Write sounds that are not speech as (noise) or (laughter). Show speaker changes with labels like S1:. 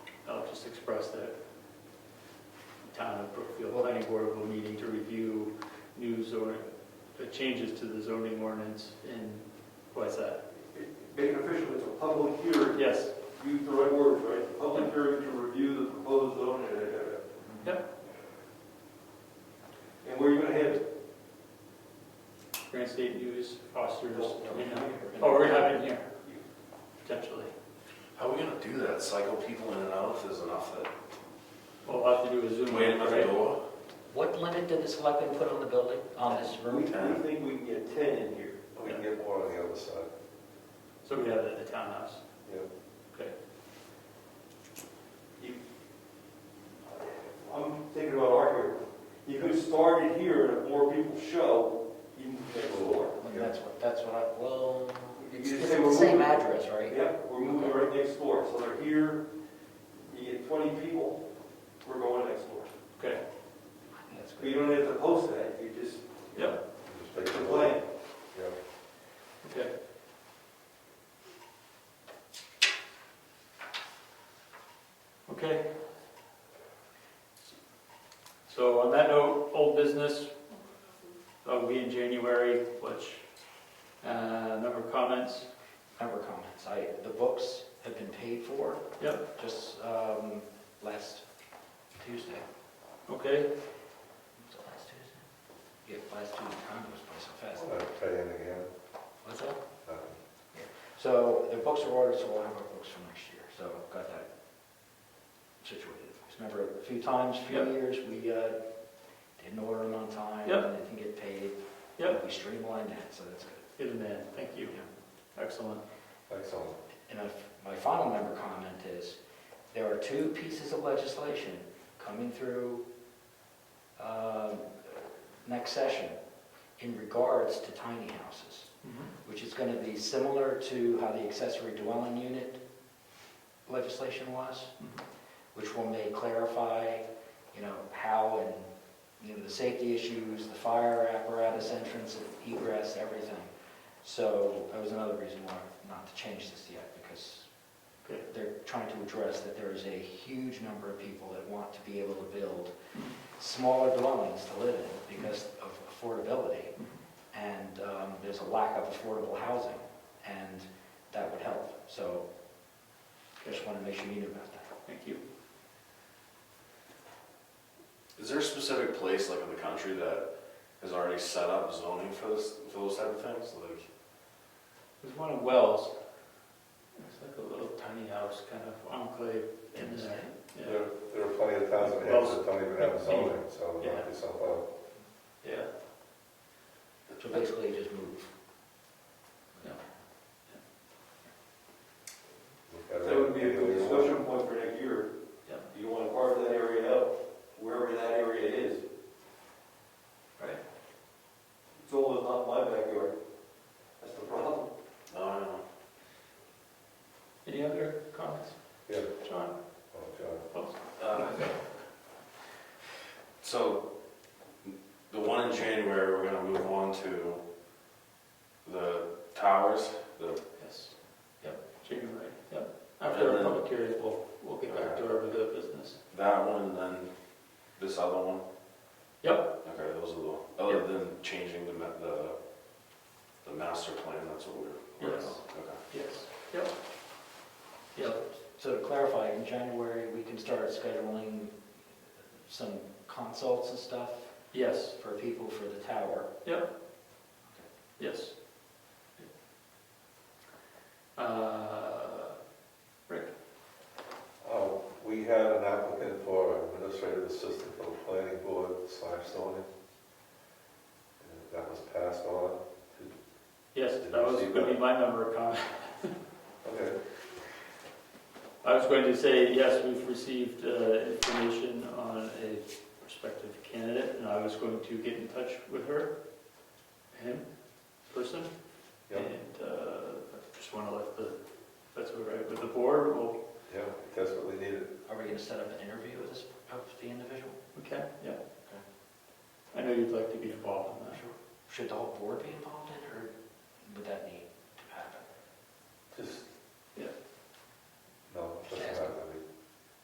S1: just expressed that town of Brookfield Planning Board will meeting to review news or the changes to the zoning ordinance in, what's that?
S2: Make it official, it's a public hearing,
S1: Yes,
S2: use the right words, right? Public hearing to review the proposed zone, yada, yada, yada. And where are you gonna have it?
S1: Grand State News, Foster's, you know, oh, we're having here, potentially.
S3: How are we gonna do that? Cycle people in and out if there's enough that
S1: We'll have to do a Zoom.
S3: wait at the
S1: right?
S3: door?
S4: What limit did the selectmen put on the building, on this
S2: We,
S4: room?
S2: we think we can get ten in here.
S5: We can get more on the other side,
S1: So we have it at the townhouse.
S5: yeah.
S1: Okay.
S2: You- I'm thinking about our hearing. You could start it here, and if more people show, you can take the floor.
S4: I mean, That's what, that's what I, well,
S2: You
S4: it's
S2: just
S4: it's
S2: say we're
S4: the same
S2: moving.
S4: address, right?
S2: Yeah, we're moving right next door, so they're here, you get twenty people, we're going next door.
S1: Okay,
S4: That's
S2: But
S4: good.
S2: you don't have to post that, you just,
S1: yep,
S5: Just
S2: it's
S5: take
S2: a
S5: the
S2: plan.
S5: vote. Yeah.
S1: okay. Okay. So on that note, old business, uh, we in January, which, uh, number of comments,
S4: Member comments, I, the books have been paid for.
S1: Yep.
S4: Just um, last Tuesday,
S1: okay?
S4: was it last Tuesday? Yeah, last Tuesday, time goes by so fast.
S5: I'll tell you in again.
S4: What's that?
S5: Uh,
S4: So the books are ordered, so we'll have our books for next year, so I've got that situated. Just Remember, a few times, a few
S1: Yep.
S4: years, we uh, didn't order them on time.
S1: Yep.
S4: and They didn't get paid.
S1: Yep.
S4: We streamlined that, so that's good.
S1: Good man, thank you, excellent.
S5: Excellent.
S4: And my- my final member comment is, there are two pieces of legislation coming through um, next session in regards to tiny houses, which is going to be similar to how the accessory dwelling unit legislation was,
S1: Mhm.
S4: which will may clarify, you know, how and, you know, the safety issues, the fire apparatus entrance, egress, everything. So that was another reason why not to change this yet, because
S1: Okay.
S4: they're trying to address that there is a huge number of people that want to be able to build Mm-hmm. smaller dwellings to live in because of affordability. And um, there's a lack of affordable housing, and that would help. So I just want to make sure you knew about that.
S1: Thank you.
S3: Is there a specific place like in the country that has already set up zoning for this, for those type of things? Like,
S1: There's one in Wells. It's like a little tiny house, kind of enclave in there. Yeah,
S5: There, there are plenty of towns and towns that don't even have zoning, so
S1: Yeah.
S5: knock yourself
S3: Oh,
S5: out.
S1: yeah.
S4: So basically, just move.
S5: Look at it.
S2: That would be a good discussion point for next year.
S1: Yeah.
S2: Do you want to carve that area out, wherever that area is?
S1: Right.
S2: It's always not my backyard. That's the problem.
S3: no, I don't know.
S1: Any other comments?
S5: Yeah.
S1: John?
S5: Oh, God.
S1: Wells?
S3: Uh, (laughs) So, the one in January, we're gonna move on to the towers, the,
S1: Yes. Yep, January, yep. After our public hearing, we'll, we'll get back to our regular business.
S3: that one, and then this other one?
S1: Yep,
S3: Okay, those are the, other than changing the, ma- the, the master plan, that's what we're, we're on.
S1: Yes.
S3: okay.
S1: yes, yep. Yep,
S4: So to clarify, in January, we can start scheduling some consults and stuff
S1: yes,
S4: for people for the tower.
S1: yes. Uh, Rick?
S5: Oh, we had an applicant for administrative assistant for the planning board slash zoning. And That was passed on.
S1: Yes, that was gonna be my number of comments.
S5: Okay,
S1: I was going to say, yes, we've received uh, information on a prospective candidate, and I was going to get in touch with her, him, person,
S5: yeah,
S1: and uh, I just want to let the, if that's all right with the board, well,
S5: yeah, desperately needed.
S4: Are we going to set up an interview with this, of the individual?
S1: we can, yeah. I know you'd like to be involved in that.
S4: Should the whole board be involved in it, or would that need